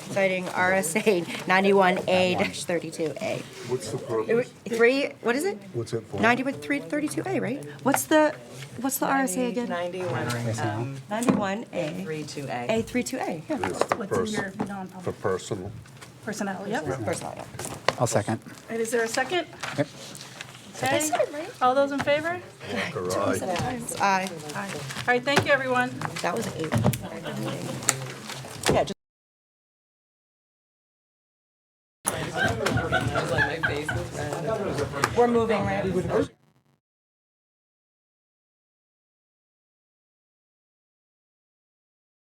citing RSA 91A-32A. What's the It wa- purpose? Three, what is it? What's it for? 9132A, right? What's the, what's the RSA again? 91, um, 91A, 32A. A32A, yeah. It's for What's in your person, for non-public personal. personnel, yep. First line. I'll second. And is there a second? Yep. Okay, all those in favor? Walker, aye. It's I. Aye. All right, thank you, everyone. That was eight. Yeah, just My face is red. We're moving, right?